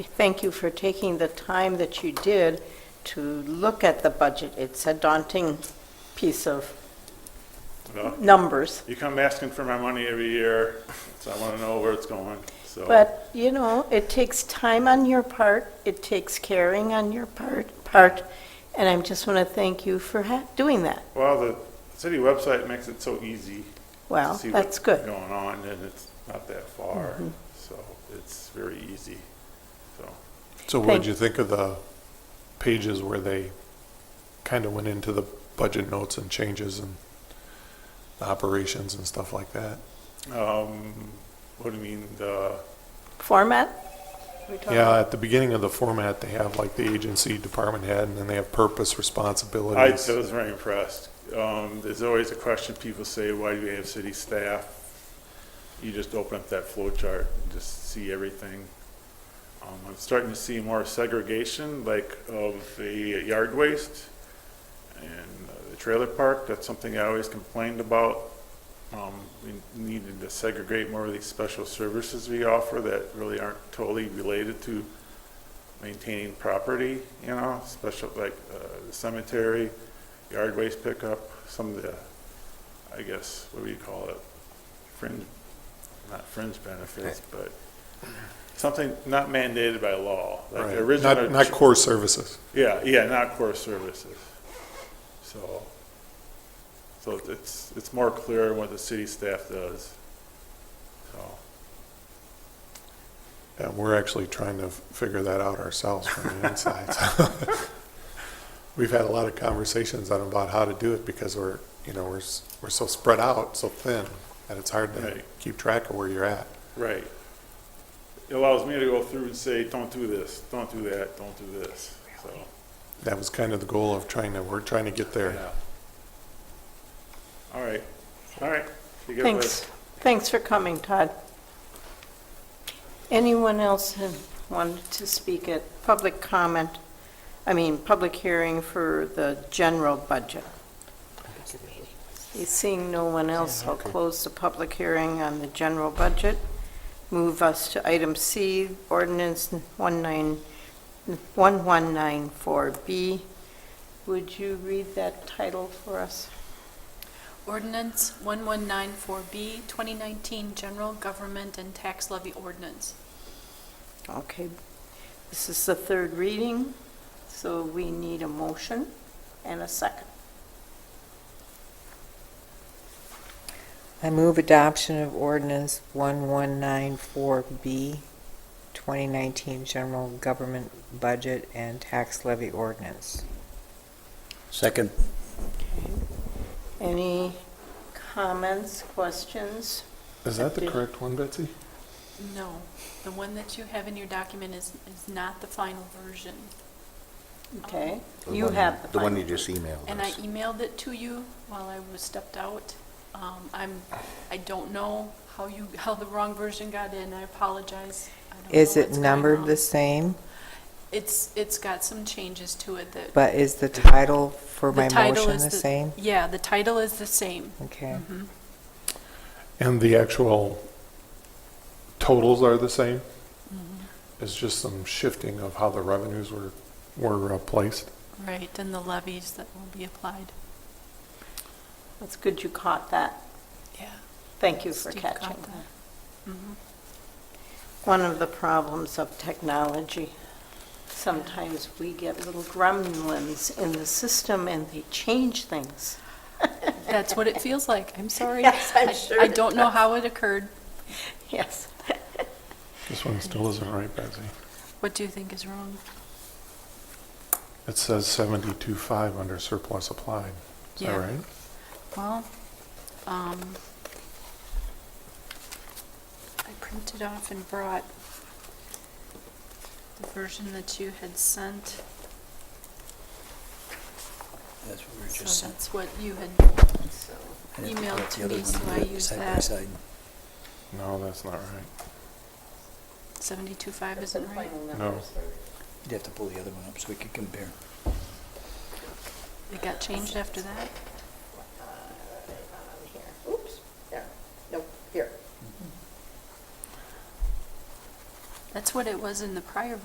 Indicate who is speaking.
Speaker 1: Thank you for taking the time that you did to look at the budget. It's a daunting piece of
Speaker 2: Well,
Speaker 1: numbers.
Speaker 2: You come asking for my money every year, so I want to know where it's going, so.
Speaker 1: But, you know, it takes time on your part, it takes caring on your part, part, and I just want to thank you for ha- doing that.
Speaker 2: Well, the city website makes it so easy.
Speaker 1: Well,
Speaker 2: to see
Speaker 1: that's
Speaker 2: what's
Speaker 1: good. Mm-hmm.
Speaker 2: Going on, and it's not that far, so it's very easy, so.
Speaker 3: So what
Speaker 1: Thank-
Speaker 3: did you think of the pages where they kind of went into the budget notes and changes and the operations and stuff like that?
Speaker 2: Um, what do you mean, the,
Speaker 1: Format? We talk-
Speaker 3: Yeah, at the beginning of the format, they have like the agency, department head, and then they have purpose,
Speaker 2: I
Speaker 3: responsibilities.
Speaker 2: I was very impressed. Um, there's always a question people say, why do we have city staff? You just open up that flow chart and just see everything. Um, I'm starting to see more segregation, like of the yard waste and uh, the trailer park. That's something I always complained about. Um, we needed to segregate more of these special services we offer that really aren't totally related to maintaining property, you know, special, like uh, the cemetery, yard waste pickup, some of the, I guess, what do you call it? Fringe, not fringe
Speaker 3: Eh.
Speaker 2: benefits, but something not mandated by law. like the
Speaker 3: Right.
Speaker 2: original-
Speaker 3: Not, not core services.
Speaker 2: Yeah, yeah, not core services. So, so it's, it's more clear what the city staff does. So,
Speaker 3: Yeah, we're actually trying to f- figure that out ourselves from the inside. so. We've had a lot of conversations on about how to do it because we're, you know, we're, s- we're so spread out, so thin, that it's hard to
Speaker 2: Right.
Speaker 3: keep track of where you're at.
Speaker 2: Right. It allows me to go through and say, don't do this, don't do that, don't do this, so,
Speaker 3: That was kind of the goal of trying to, we're trying to get there.
Speaker 2: yeah. All right, all right. You get
Speaker 1: Thanks, thanks for coming, Todd. Anyone else who wanted to speak at public comment, I mean, public hearing for the general budget? Seeing no one else, I'll close the public hearing on the general budget. Move us to item C, ordinance 19 1194B. Would you read that title for us?
Speaker 4: Ordinance 1194B, 2019 General Government and Tax Levy Ordinance.
Speaker 1: Okay, this is the third reading, so we need a motion and a second.
Speaker 5: I move adoption of ordinance 1194B, 2019 General Government Budget and Tax Levy Ordinance.
Speaker 6: Second.
Speaker 1: Any comments, questions?
Speaker 3: Is that the correct one, Betsy?
Speaker 4: No, the one that you have in your document is, is not the final version.
Speaker 1: Okay, you have the
Speaker 6: The one you
Speaker 1: final.
Speaker 6: just
Speaker 5: Oh,
Speaker 6: emailed
Speaker 4: And I
Speaker 6: us.
Speaker 4: emailed it to you while I was stepped out. Um, I'm, I don't know how you, how the wrong version got in, I apologize. I don't
Speaker 5: Is
Speaker 4: know
Speaker 5: it
Speaker 4: what's going
Speaker 5: numbered
Speaker 4: on.
Speaker 5: the same,
Speaker 4: It's, it's got some changes to it that.
Speaker 5: but is the title for my
Speaker 4: the title
Speaker 5: motion
Speaker 4: is
Speaker 5: the same?
Speaker 4: Yeah, the title is the same.
Speaker 5: Okay.
Speaker 3: And the actual totals are the same? It's just some shifting of how the revenues were, were uh, placed?
Speaker 4: Right, and the levies that will be applied.
Speaker 1: That's good you caught that.
Speaker 4: Yeah.
Speaker 1: Thank you for
Speaker 4: Steve
Speaker 1: catching
Speaker 4: caught
Speaker 1: that.
Speaker 4: that. Mm-hmm.
Speaker 1: One of the problems of technology, sometimes we get little gremlins in the system and they change things.
Speaker 4: That's what it feels like. I'm sorry.
Speaker 1: Yes, I'm
Speaker 4: I-
Speaker 1: sure
Speaker 4: I
Speaker 1: it
Speaker 4: don't know how it occurred.
Speaker 1: Yes.
Speaker 3: This one still isn't right, Betsy.
Speaker 4: What do you think is wrong?
Speaker 3: It says seventy-two five under surplus applied. Is that
Speaker 4: Yeah.
Speaker 3: right?
Speaker 4: Well, um, I printed off and brought the version that you had sent.
Speaker 6: That's what we were just
Speaker 4: So
Speaker 6: sent.
Speaker 4: that's what you had,
Speaker 1: So,
Speaker 6: I didn't put
Speaker 4: emailed
Speaker 6: up the
Speaker 4: to
Speaker 6: other
Speaker 4: me,
Speaker 6: one.
Speaker 4: so
Speaker 6: We
Speaker 4: I
Speaker 6: did it
Speaker 4: used
Speaker 6: side by
Speaker 4: that.
Speaker 6: side.
Speaker 3: No, that's not right.
Speaker 1: that's
Speaker 4: 72.5
Speaker 1: the
Speaker 4: isn't right.
Speaker 1: final
Speaker 3: No.
Speaker 1: numbers.
Speaker 6: You'd have to pull the other one up so we could compare.
Speaker 4: It got changed after that?
Speaker 1: Uh, Here. Oops, there, nope, here.
Speaker 4: That's what it was in the prior